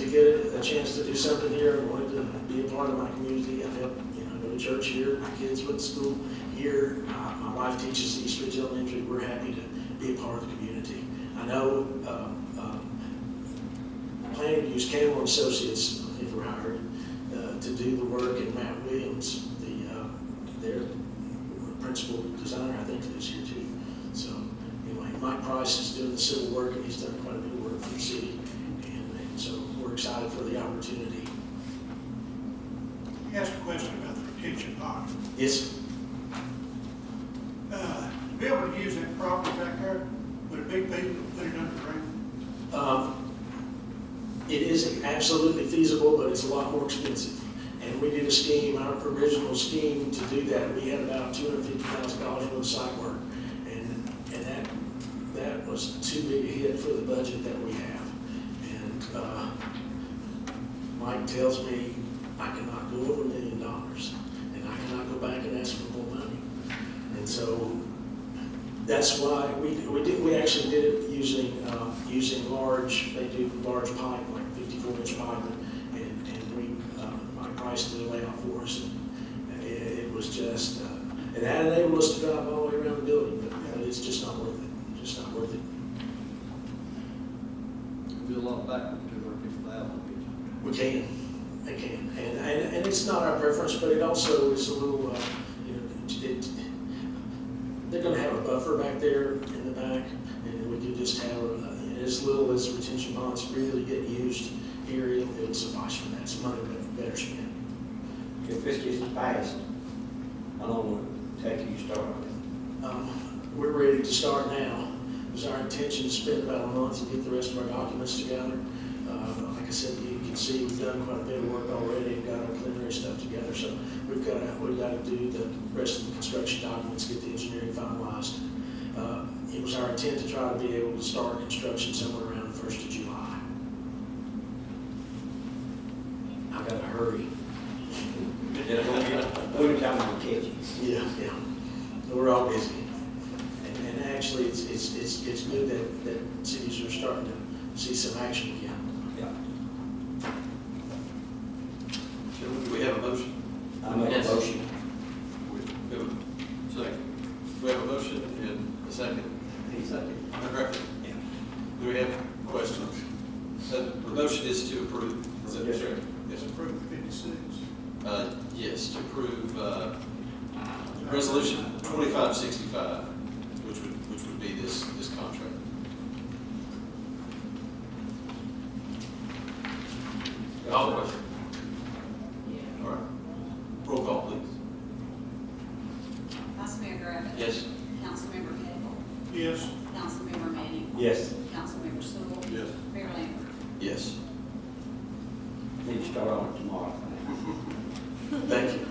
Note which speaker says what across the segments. Speaker 1: a chance to do something here, I wanted to be a part of my community, I've helped, you know, go to church here, my kids went to school here, Uh, my wife teaches at East Ridge Elementary, we're happy to be a part of the community. I know, uh, uh, planning to use Campbell and Associates, if we're hired, uh, to do the work, and Matt Williams, the, uh, their principal designer, I think, this year too. So, anyway, Mike Price is doing the civil work, and he's done quite a bit of work for the city, and, and so we're excited for the opportunity.
Speaker 2: Let me ask a question about the retention pond.
Speaker 1: Yes,
Speaker 2: Uh, To be able to use that property back there, would it be feasible to put it underground?
Speaker 1: um, it is absolutely feasible, but it's a lot more expensive. And we did a scheme, our original scheme to do that, we had about two hundred fifty thousand dollars worth of site work. And, and that, that was too big a hit for the budget that we have. And, uh, Mike tells me I cannot go over a million dollars, and I cannot go back and ask for more money. And so that's why we, we did, we actually did it using, uh, using large, they do large pipe, like fifty-four inch pipe, and, and we, uh, Mike Price did a layout for us, and it, it was just, uh, and that enabled us to drive all the way around the building, but- but it's just not worth it, just not worth it.
Speaker 3: Do a lot back with two hundred fifty thousand.
Speaker 1: We can, they can, and, and, and it's not our preference, but it also is a little, uh, you know, it- it, they're gonna have a buffer back there in the back, and we do just have, uh, as little as retention bonds really get used here, it'll, it'll suffice for that, it's money bet- better spent.
Speaker 4: If this gets passed, how long will it take you to start?
Speaker 1: Um, We're ready to start now. It was our intention to spend about a month and get the rest of our documents together. Uh, Like I said, you can see we've done quite a bit of work already and got our preliminary stuff together. So we've got to, we've got to do the rest of the construction documents, get the engineering finalized. Uh, It was our intent to try to be able to start construction somewhere around the first of July. I got to hurry.
Speaker 4: When the time we catch it?
Speaker 1: Yeah, yeah. We're all busy. And, and actually, it's, it's, it's, it's good that, that cities are starting to see some action again.
Speaker 5: Gentlemen, do we have a motion?
Speaker 4: I make a
Speaker 6: Yes.
Speaker 4: motion.
Speaker 5: We have a second. We have a motion and a second.
Speaker 3: Exactly.
Speaker 5: Correct?
Speaker 4: Yeah.
Speaker 5: Do we have questions? Uh, The motion is to approve. Is that
Speaker 4: Yes, sir.
Speaker 5: correct? Yes, approve.
Speaker 2: Approved fifty-six.
Speaker 5: Uh, Yes, to approve uh, Resolution 2565, which would, which would be this, this contract.
Speaker 4: Oh,
Speaker 6: Call the question.
Speaker 5: All right. Roll call, please.
Speaker 7: Vice Mayor Griffin.
Speaker 6: Yes.
Speaker 7: Councilmember Cagle.
Speaker 2: Yes,
Speaker 7: Councilmember Manning.
Speaker 4: Yes,
Speaker 7: Councilmember Sewell.
Speaker 5: Yes.
Speaker 7: Mayor Lambert.
Speaker 5: Yes.
Speaker 4: need to start on it tomorrow.
Speaker 1: Thank you.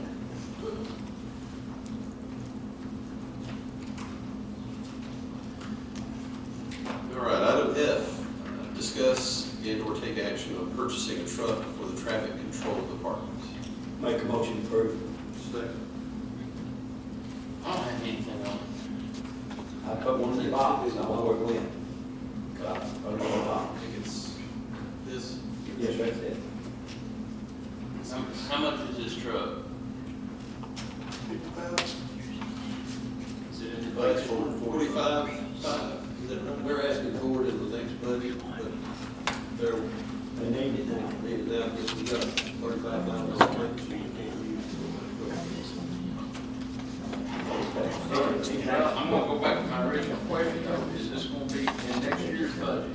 Speaker 5: All right, item F, uh, discuss and/or take action on purchasing a truck for the traffic control department.
Speaker 4: Make a motion to approve.
Speaker 5: Second.
Speaker 6: I don't have anything on it.
Speaker 4: I put one in the box, I know where it went. God, I don't know
Speaker 5: I
Speaker 4: about.
Speaker 5: think it's this.
Speaker 4: Yes, right there.
Speaker 6: How- How much is this truck?
Speaker 2: fifty thousand.
Speaker 6: Is it in the
Speaker 5: Budget
Speaker 6: budget?
Speaker 5: forty-five, five, is that right?
Speaker 3: They're asking for it in the next budget, but they're,
Speaker 4: They need it now.
Speaker 3: they need it now, because we got thirty-five thousand.
Speaker 6: Well, I'm gonna go back to my original question, though, is this gonna be in next year's budget?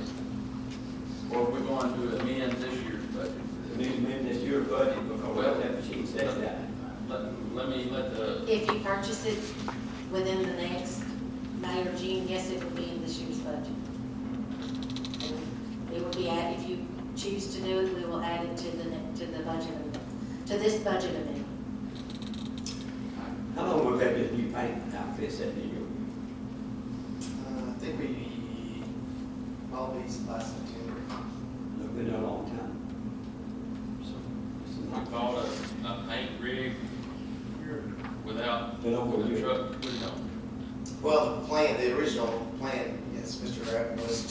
Speaker 6: Or are we going to amend this year's budget?
Speaker 4: We need to amend this year budget because that machine says that.
Speaker 6: Let, let me, let the,
Speaker 8: If you purchase it within the next May or June, yes, it will be in this year's budget. And It will be, add- if you choose to do it, we will add it to the, ne- to the budget, amendment- to this budget amendment.
Speaker 4: How long will that this new paint outfit set in you?
Speaker 9: Uh, I think we, always last September.
Speaker 4: It's been a long time. It's
Speaker 6: we
Speaker 4: not-
Speaker 6: call it a, a paint rig without
Speaker 4: They don't go
Speaker 6: the
Speaker 4: here.
Speaker 6: truck put it on.
Speaker 9: Well, the plan, the original plan, yes, Mr. Rapp was